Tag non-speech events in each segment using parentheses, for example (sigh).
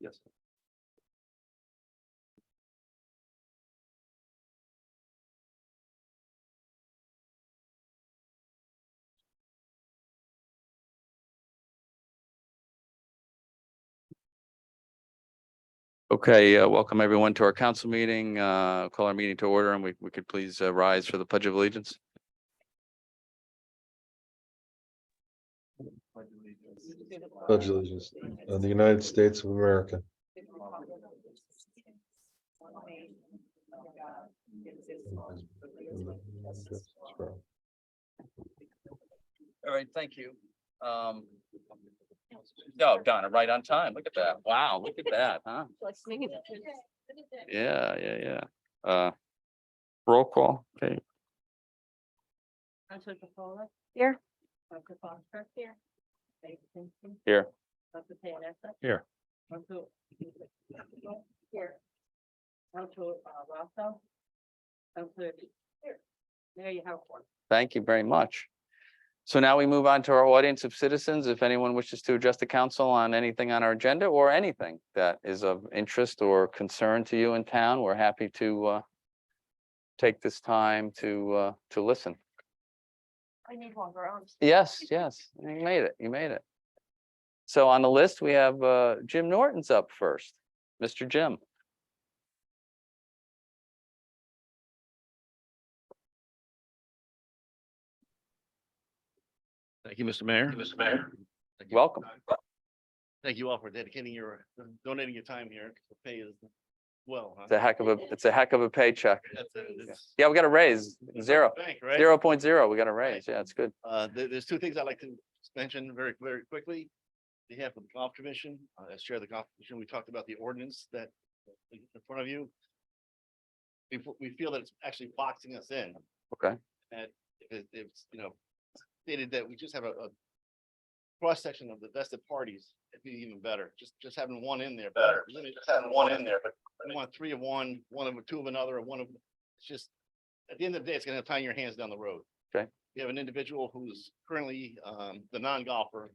Yes. Okay, uh, welcome everyone to our council meeting. Uh, Call our meeting to order and we we could please uh, rise for the pledge of allegiance. Pledge allegiance to the United States of America All right, thank you. Um. No, Donna, right on time. Look at that. Wow, look at that, huh? Yeah, yeah, yeah. Uh. Roll call, okay. Counselor DePaula. Here. Dr. Foster. Here. Dr. Kingston. Here. Dr. Panassa. Here. Dr. Here. uh, Dr. Rosso. Dr. Here. There you have one. Thank you very much. So now we move on to our audience of citizens. If anyone wishes to address the council on anything on our agenda or anything that is of interest or concern to you in town, we're happy to uh take this time to uh to listen. I need longer arms. Yes, yes, you made it, you made it. So on the list, we have uh Jim Norton's up first. Mr. Jim. Thank you, Mr. Mayor. Mr. Mayor. Welcome. Thank you all for dedicating your, donating your time here. The Pay is well. huh? It's a heck of a, it's a heck of a paycheck. That's it. It's- Yeah, we got a raise, it's zero, like a Bank, right? zero point zero. We got a raise. Yeah, it's good. Uh, there, there's two things I'd like to mention very, very quickly. On behalf of the golf commission, uh, as chair of the golf commission, we talked about the ordinance that is in front of you. We, f- we feel that it's actually boxing us in. Okay. That if it- if it's, you know, stated that we just have a, a cross-section of the vested parties, it'd be even better. Just, just having one in there. Better, just having one in there, but. We want three of one, one of, two of another, and one of, it's just, at the end of the day, it's gonna tie your hands down the road we have an individual who's currently um the non-golfer.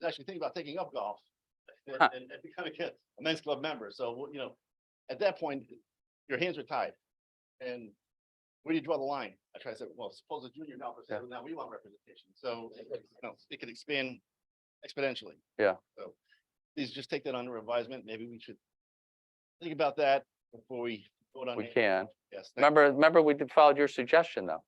is Actually thinking about taking up (laughs) golf and Huh. and- and becoming a- a men's club member. So, well, you know, at that point, your hands are tied. And where do you draw the line? I try to say, well, suppose a junior golfer says, well, now we want representation. So it- it- you know, it could expand exponentially. Yeah. So please just take that under advisement. Maybe we should think about that before we vote on We it. can. Yes, that- Remember, remember we did- followed your suggestion though.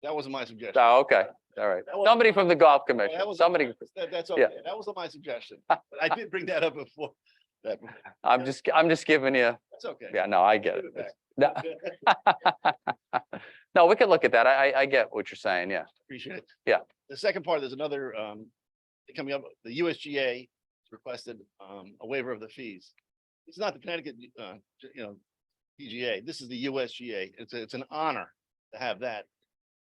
that wasn't my suggestion. Oh, okay. All right. That wasn't Somebody my- from the golf Well, commission, that was- somebody, That, that's, Yeah. okay. that was my suggestion. But I did bring that up before. (laughs) That, I'm just, I'm just giving you, that's okay. yeah, no, I get it. Give it back. It's- No, No, we could look at that. I, I, I get what you're saying. Yeah. Appreciate it. Yeah. The second part, there's another, um, coming up, the USGA requested, um, a waiver of the fees. It's not the Connecticut, uh, you know, PGA. This is the USGA. It's, a- it's an honor to have that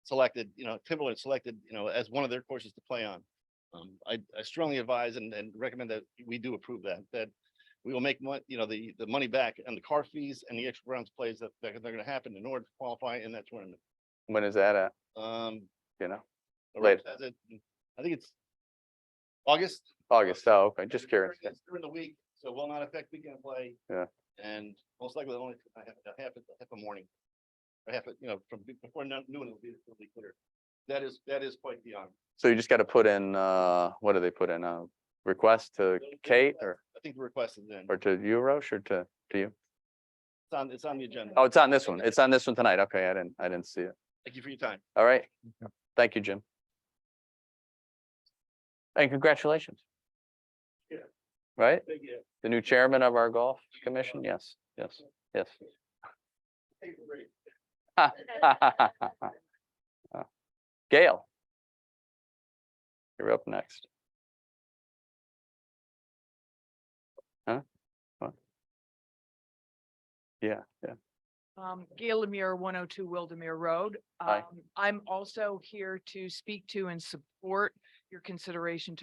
selected, you know, Timberland selected, you know, as one of their courses to play on. Um, I, I strongly advise and, and recommend that we do approve that, that we will make mon- you know, the, the money back and the car fees and the extra rounds plays that, that are gonna happen in order to qualify in that tournament. When is that at? Um, You know, or Later. as it- mm, I think it's August. August. Oh, okay. Just It's during- curious. it's During the week, so will not affect weekend play. Yeah. And most likely only I have, I have, I have a morning. I have, it, you know, from be- before no- noon, it'll be, it'll be clear. That is, that is quite the honor. So you just got to put in, uh, what do they put in? A request to They'll- they'll Kate request- or, I think the request is in. or to you, Roche, or to, to you? It's on, it's on the agenda. Oh, it's on this one. It's on this one tonight. Okay. I didn't, I didn't see it. Thank you for your time. All right. Thank you, Jim. And congratulations. Yeah. Right? Thank you. The new chairman of our golf commission? Yes, yes, yes. (laughs) Take a break. Gail. You're up next. Huh? What? Yeah, yeah, Um, Gail Lemire, one oh two Wildemere Road. Hi. Um, I'm also here to speak to and support your consideration to